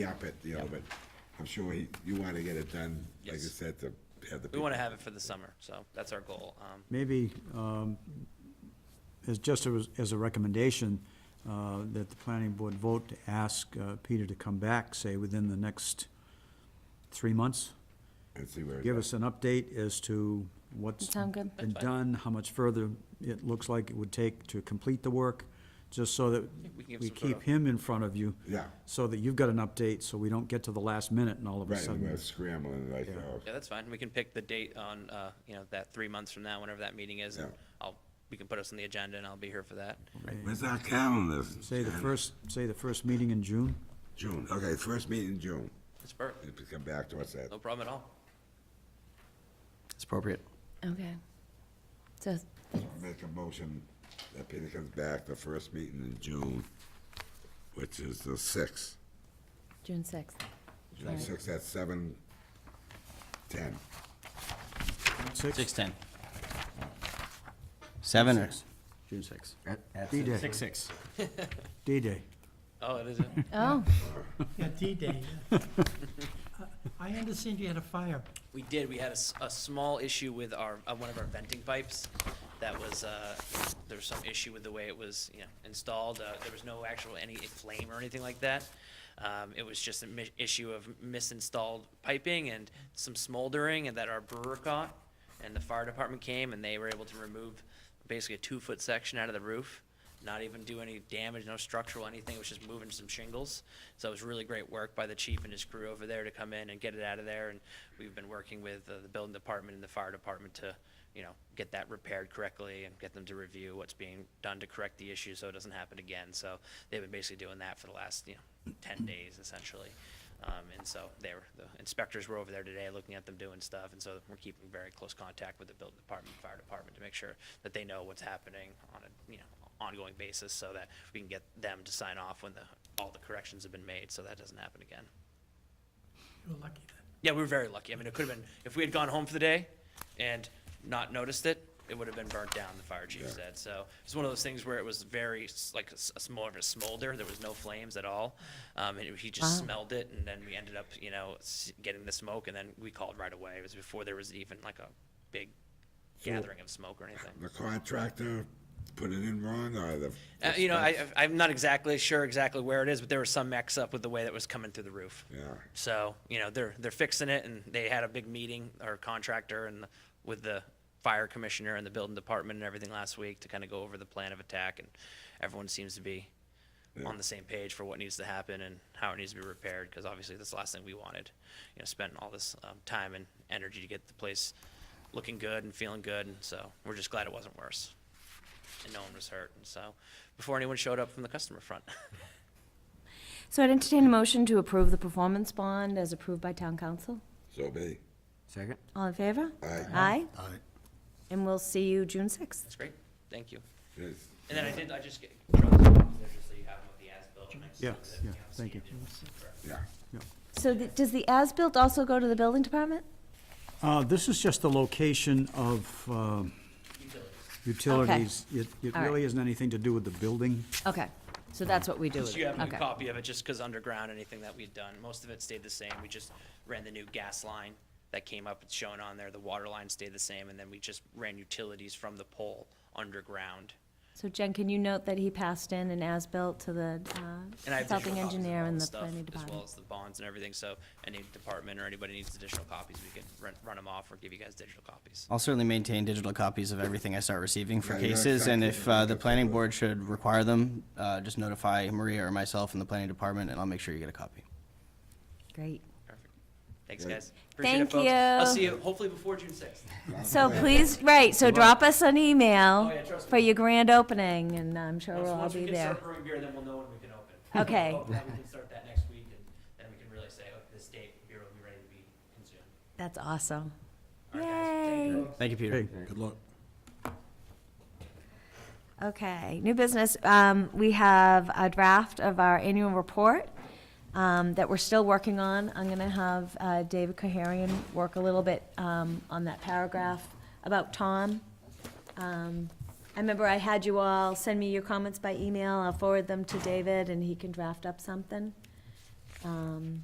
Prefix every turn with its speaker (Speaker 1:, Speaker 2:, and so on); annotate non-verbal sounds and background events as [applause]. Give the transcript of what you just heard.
Speaker 1: up it, you know, but I'm sure he, you want to get it done, like I
Speaker 2: Yes.
Speaker 1: said, to have the.
Speaker 2: We want to have it for the summer, so that's our goal. Um,
Speaker 3: Maybe, um, as just as, as a recommendation, uh, that the planning board vote to ask, uh, Peter to come back, say, within the next three months.
Speaker 1: And see where. it
Speaker 3: Give
Speaker 1: goes.
Speaker 3: us an update as to what's
Speaker 4: Sound good?
Speaker 3: been
Speaker 2: That's fine.
Speaker 3: done, how much further it looks like it would take to complete the work, just so that
Speaker 2: we can give
Speaker 3: we
Speaker 2: some sort
Speaker 3: keep
Speaker 2: of-
Speaker 3: him in front of you.
Speaker 1: Yeah.
Speaker 3: So that you've got an update, so we don't get to the last minute and all of a
Speaker 1: Right, and
Speaker 3: sudden.
Speaker 1: we're scrambling like, oh,
Speaker 2: Yeah, that's fine. We can pick the date on, uh, you know, that three months from now, whenever that meeting is. and
Speaker 1: Yeah.
Speaker 2: I'll, we can put us on the agenda and I'll be here for that.
Speaker 1: where's our calendar?
Speaker 3: Say the
Speaker 1: Jan-
Speaker 3: first, say the first meeting in June?
Speaker 1: June, okay, first meeting in June,
Speaker 2: It's perfect.
Speaker 1: if you come back to us at,
Speaker 2: No problem at all.
Speaker 5: It's appropriate.
Speaker 4: Okay. So,
Speaker 1: make a motion that Peter comes back the first meeting in June, which is the sixth.
Speaker 4: June sixth.
Speaker 1: June sixth at seven ten.
Speaker 3: Six?
Speaker 5: 6:10. 7 or?
Speaker 3: Six.
Speaker 5: June 6.
Speaker 3: D-Day,
Speaker 5: 6.
Speaker 3: D-Day.
Speaker 2: Oh, it is, a-
Speaker 4: [laughs] Oh,
Speaker 6: Yeah, [laughs] D-Day. I understand you had a fire.
Speaker 2: we did, we had a, s- a small issue with our, uh, one of our venting pipes. That was, uh, there was some issue with the way it was, you know, installed. Uh, there was no actual any flame or anything like that. Um, it was just an issue of misinstalled piping and some smoldering and that our brewer caught. And the fire department came and they were able to remove basically a two-foot section out of the roof. not even do any damage, no structural anything, it was just moving some shingles. So it was really great work by the chief and his crew over there to come in and get it out of there. And we've been working with uh, the building department and the fire department to, you know, get that repaired correctly and get them to review what's being done to correct the issue so it doesn't happen again. So they've been basically doing that for the last, you know, ten days essentially. Um, and so they were, the inspectors were over there today looking at them doing stuff, and so we're keeping very close contact with the building department, fire department, to make sure that they know what's happening on a, you know, ongoing basis, so that we can get them to sign off when the, all the corrections have been made, so that doesn't happen again.
Speaker 6: You were lucky then.
Speaker 2: Yeah, we were very lucky. I mean, it could have been, if we had gone home for the day and not noticed it, it would have been burnt down, the fire chief said. So it's one of those things where it was very, s- like, s- s- more of a smolder. There was no flames at all. Um, and he just
Speaker 4: Wow.
Speaker 2: smelled it, and then we ended up, you know, s- getting the smoke, and then we called right away. It was before there was even like a big gathering of smoke or anything.
Speaker 1: The contractor put it in wrong, or the?
Speaker 2: Uh, you know, I, I- I'm not exactly sure exactly where it is, but there was some mix up with the way that was coming through the roof.
Speaker 1: Yeah.
Speaker 2: So, you know, they're, they're fixing it and they had a big meeting, our contractor and with the fire commissioner and the building department and everything last week to kind of go over the plan of attack and everyone seems to be on the same page for what needs to happen and how it needs to be repaired, because obviously that's the last thing we wanted. You know, spending all this, um, time and energy to get the place looking good and feeling good, and so we're just glad it wasn't worse. And no one was hurt, and so, before anyone showed up from the customer front. [laughs]
Speaker 4: so I'd entertain a motion to approve the performance bond as approved by town council.
Speaker 1: So be,
Speaker 5: Second?
Speaker 4: All in favor?
Speaker 1: Aye.
Speaker 4: Aye? Aye. And we'll see you June sixth.
Speaker 2: That's great, thank you.
Speaker 1: Yes.
Speaker 2: And then I did, I just get, dropped them off there just so you have them with the as-built. and I just
Speaker 3: Yeah,
Speaker 2: looked at,
Speaker 3: yeah,
Speaker 2: know,
Speaker 3: thank
Speaker 2: scanned
Speaker 3: you.
Speaker 2: it. Perfect.
Speaker 1: yeah,
Speaker 4: So the- does the as-built also go to the building department?
Speaker 3: Uh, this is just the location of, um, utilities. It, it
Speaker 4: All right.
Speaker 3: really isn't anything to do with the building.
Speaker 4: Okay, so that's what we do with
Speaker 2: So you
Speaker 4: it,
Speaker 2: have a new
Speaker 4: okay.
Speaker 2: copy of it, just because underground, anything that we've done, most of it stayed the same. We just ran the new gas line that came up, it's shown on there, the water line stayed the same, and then we just ran utilities from the pole underground.
Speaker 4: So Jen, can you note that he passed in an as-built to the uh,
Speaker 2: And I have additional copies of
Speaker 4: consulting engineer
Speaker 2: all
Speaker 4: and the
Speaker 2: stuff,
Speaker 4: planning
Speaker 2: As well
Speaker 4: department?
Speaker 2: as the bonds and everything, so any department or anybody needs additional copies, we can run, run them off or give you guys digital copies.
Speaker 5: I'll certainly maintain digital copies of everything I start receiving for
Speaker 1: Yeah, you don't
Speaker 5: cases, and
Speaker 1: exactly
Speaker 5: if
Speaker 1: know
Speaker 5: uh,
Speaker 1: what
Speaker 5: the
Speaker 1: that's
Speaker 5: planning
Speaker 1: about.
Speaker 5: board should require them, uh, just notify Maria or myself and the planning department, and I'll make sure you get a copy.
Speaker 4: Great.
Speaker 2: Perfect. Thanks,
Speaker 1: Great.
Speaker 2: guys. Appreciate it,
Speaker 4: Thank
Speaker 2: folks. I'll
Speaker 4: you.
Speaker 2: see you hopefully before June sixth.
Speaker 4: So please, right, so drop us an email
Speaker 2: Oh, yeah, trust
Speaker 4: for
Speaker 2: me.
Speaker 4: your grand opening, and I'm sure
Speaker 2: Once,
Speaker 4: we'll all
Speaker 2: once we
Speaker 4: be
Speaker 2: can
Speaker 4: there.
Speaker 2: start brewing beer, then we'll know when we can open.
Speaker 4: Okay.
Speaker 2: Hopefully we can start that next week, and then we can really say, oh, this date, beer will be ready to be consumed.
Speaker 4: That's awesome.
Speaker 2: All right, guys. Thank you.
Speaker 4: Yay.
Speaker 5: Thank you, Peter.
Speaker 3: Okay, good luck.
Speaker 4: Okay, new business, um, we have a draft of our annual report, um, that we're still working on. I'm gonna have, uh, David Koharian work a little bit, um, on that paragraph about Tom. Um, I remember I had you all send me your comments by email, I'll forward them to David and he can draft up something. Um,